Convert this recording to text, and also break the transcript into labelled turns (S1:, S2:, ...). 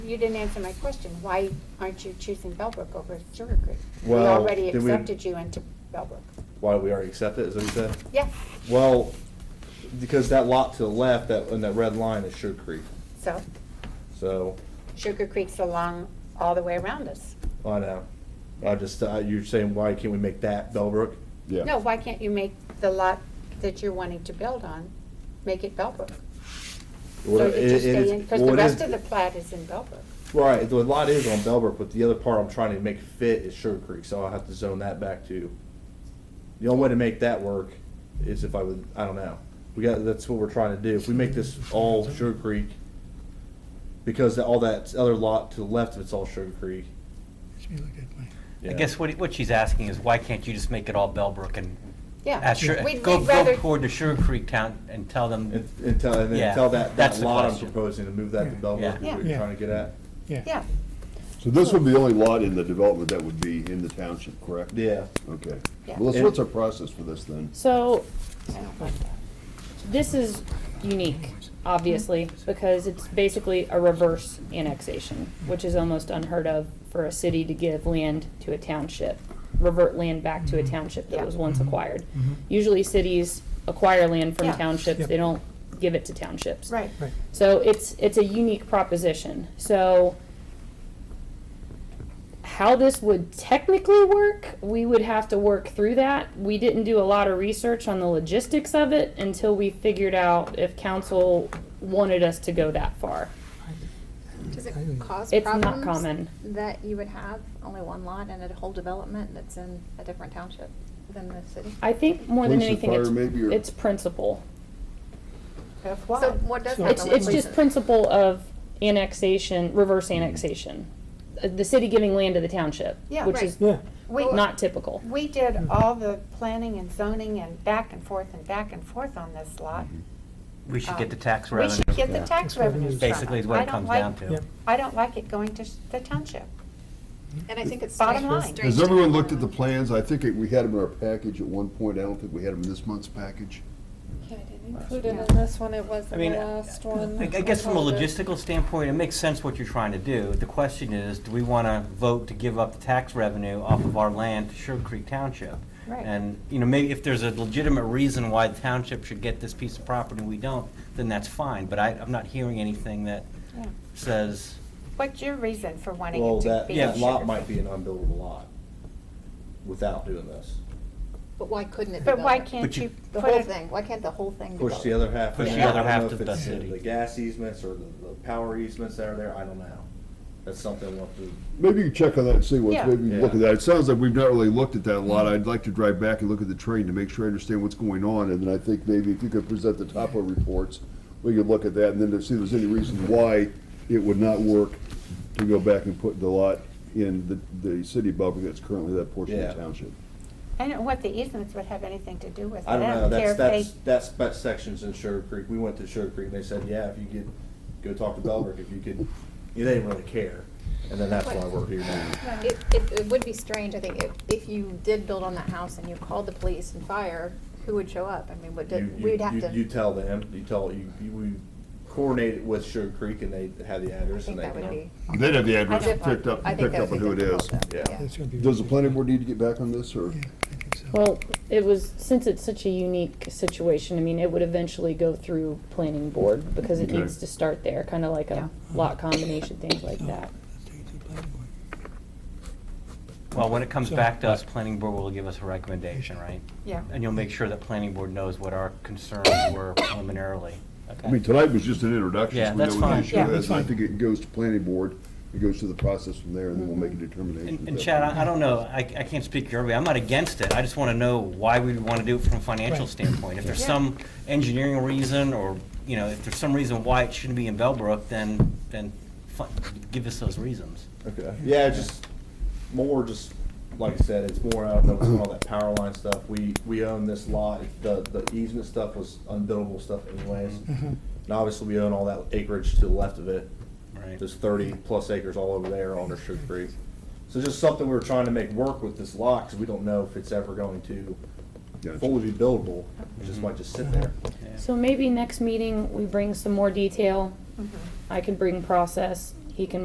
S1: you didn't answer my question. Why aren't you choosing Bellbrook over Sugar Creek? We
S2: Well,
S1: already
S2: did we-
S1: accepted you into Bellbrook.
S2: Why we already accept it, is what you said?
S1: Yeah,
S2: Well, because that lot to the left, that, and that red line is Sugar Creek,
S1: so
S2: so,
S1: Sugar Creek's along all the way around us.
S2: I know. I just, uh, you're saying, why can't we make that Bellbrook?
S3: Yeah.
S1: No, why can't you make the lot that you're wanting to build on, make it Bellbrook? So
S2: Well,
S1: you just
S2: it- it is-
S1: stay in, because
S2: well,
S1: the
S2: it is-
S1: rest of the plat is in Bellbrook.
S2: Right, the lot is on Bellbrook, but the other part I'm trying to make fit is Sugar Creek, so I'll have to zone that back too. The only way to make that work is if I would, I don't know. We got, that's what we're trying to do. If we make this all Sugar Creek, because all that other lot to the left of it's all Sugar Creek.
S4: She looked at me.
S2: yeah.
S5: I guess what, what she's asking is why can't you just make it all Bellbrook and
S1: Yeah.
S5: ask Sugar-
S1: We'd-
S5: go,
S1: we'd
S5: go
S1: rather-
S5: toward the Sugar Creek town and tell them,
S2: And, and tell, and then
S5: Yeah,
S2: tell that, that
S5: that's the
S2: lot I'm
S5: question.
S2: proposing to move that to
S4: Yeah.
S2: Bellbrook, is
S1: Yeah.
S2: what you're
S4: Yeah.
S2: trying to get at.
S1: Yeah,
S3: So this would be the only lot in the development that would be in the township, correct?
S2: Yeah.
S3: Okay.
S1: Yeah.
S3: Melissa, what's our process for this then?
S6: So
S1: I don't like that.
S6: this is unique, obviously, because it's basically a reverse annexation, which is almost unheard of for a city to give land to a township, revert land back to a township that was once acquired. Usually cities acquire land from
S1: Yeah.
S6: townships,
S4: Yep.
S6: they don't give it to townships.
S1: Right.
S4: Right.
S6: So it's, it's a unique proposition. So how this would technically work, we would have to work through that. We didn't do a lot of research on the logistics of it until we figured out if council wanted us to go that far.
S7: Does it
S4: I don't-
S7: cause problems?
S6: It's not common.
S7: That you would have only one lot and a whole development that's in a different township than the city?
S6: I think more than
S3: Police and
S6: anything, it's,
S3: fire maybe, or-
S6: it's principle.
S1: Of
S7: So
S1: what?
S7: what does
S4: So-
S7: happen
S6: It's,
S7: with
S6: it's just
S7: places?
S6: principle of annexation, reverse
S3: Mm-hmm.
S6: annexation. Uh, The city giving land to the township,
S1: Yeah.
S6: which
S1: Right.
S6: is
S4: Yeah.
S1: We-
S6: not typical.
S1: We did all the planning and zoning and back and forth and back and forth on this lot.
S2: Mm-hmm.
S5: we should get the tax
S1: Uh, Um, We
S5: revenue.
S1: should get the tax revenues from it.
S5: Basically is what
S1: I
S5: it
S1: don't
S5: comes
S1: like-
S5: down to.
S4: Yeah.
S1: I don't like it going to s- the township.
S7: And I think it's.
S1: Bottom
S7: strange-
S1: line.
S7: strange
S3: Has
S7: to
S3: everyone
S7: have
S3: looked
S7: one
S3: at the
S7: lot.
S3: plans? I think it- we had them in our package at one point. I don't think we had them in this month's package.
S8: Yeah, I didn't include it in this one, it was
S5: I
S8: the
S5: mean,
S8: last one.
S5: I I guess from a
S8: Hold it.
S5: logistical standpoint, it makes sense what you're trying to do. The question is, do we want to vote to give up the tax revenue off of our land to Sugar Creek Township?
S1: Right.
S5: And, you know, maybe if there's a legitimate reason why the township should get this piece of property and we don't, then that's fine. But I, I'm not hearing anything that
S1: Yeah.
S5: says,
S1: What's your reason for wanting
S2: Well,
S1: it to
S2: that,
S1: be?
S2: that
S1: in
S2: lot
S1: Sugar
S2: might
S1: Creek?
S2: be an unbuildable lot without doing this.
S7: But why couldn't it
S1: But why
S7: develop?
S1: can't
S5: But you-
S1: you
S7: The
S1: put
S7: whole
S1: it
S7: thing, why can't the whole thing develop?
S2: Push the other half. in
S5: Push the
S2: there. I
S5: other
S2: don't
S5: half
S2: know
S5: to
S2: if
S5: the
S2: it's
S5: city.
S2: The gas easements or the, the power easements that are there, I don't know. That's something we'll have to,
S3: Maybe you check on that and see
S1: Yeah.
S3: what's, maybe you look
S2: Yeah.
S3: at that. It sounds like we've not really looked at that a lot. I'd like to drive back and look at the train to make sure I understand what's going on. And then I think maybe if you could present the topo reports, we could look at that and then to see if there's any reason why it would not work to go back and put the lot in the, the city of Belgrade that's currently that portion of
S2: Yeah.
S3: the township.
S1: I don't know what the easements would have anything to do with it.
S2: I don't know,
S1: care
S2: that's,
S1: if they-
S2: that's, that's, that section's in Sugar Creek. We went to Sugar Creek and they said, yeah, if you could, go talk to Bellbrook, if you could, they didn't really care. And then that's why we're here now.
S7: It, it, it would be strange, I think, if, if you did build on that house and you called the police and fire, who would show up? I mean, would,
S2: You- you-
S7: we'd have
S2: you-
S7: to.
S2: You tell them, you tell, you, you, we coordinate it with Sugar Creek and they have the
S7: I
S2: address and
S7: think
S2: they.
S7: that would
S2: can-
S7: be.
S3: They'd have the
S7: I think- I think that would be difficult, though.
S2: Yeah.
S4: That's gonna be-
S3: Does the planning board need to get back on this or?
S4: Yeah, I think so.
S6: Well, it was, since it's such a unique situation, I mean, it would eventually go through planning board because it
S3: Okay.
S6: needs to start there, kind of like
S1: Yeah.
S6: a lot combination, things like
S4: Oh,
S6: that.
S4: I'll take it to the planning board.
S5: well, when it comes
S4: So-
S5: back to us, planning board will give us a recommendation, right?
S1: Yeah.
S5: And you'll make sure that planning board knows what our concerns were preliminarily.
S3: I mean, tonight was just an introduction.
S5: Yeah,
S3: so we
S5: that's
S3: know what the
S5: fine.
S3: issue
S1: Yeah,
S3: is.
S4: that's
S3: I
S4: fine.
S3: think it goes to planning board, it goes through the process from there, and then we'll make a determination.
S5: And
S3: at
S5: and
S3: that
S5: Chad,
S3: point.
S5: I I don't know, I, I can't speak your way, I'm not against it, I just want to know why we want to do it from a financial
S4: Right.
S5: standpoint. If there's
S1: Yeah.
S5: some engineering reason, or, you know, if there's some reason why it shouldn't be in Bellbrook, then, then fi- give us those reasons.
S2: Okay. Yeah, just more just, like I said, it's more, I don't know, it's all that power line stuff. We, we own this lot. The, the easement stuff was unbuildable stuff anyways. And obviously, we own all that acreage to the left of it.
S5: Right.
S2: There's thirty plus acres all over there on Sugar Creek. So just something we were trying to make work with this lot, because we don't know if it's ever going to
S3: Gotcha.
S2: fully be buildable. It just might just sit there.
S6: So maybe next meeting, we bring some more detail. I can bring process, he can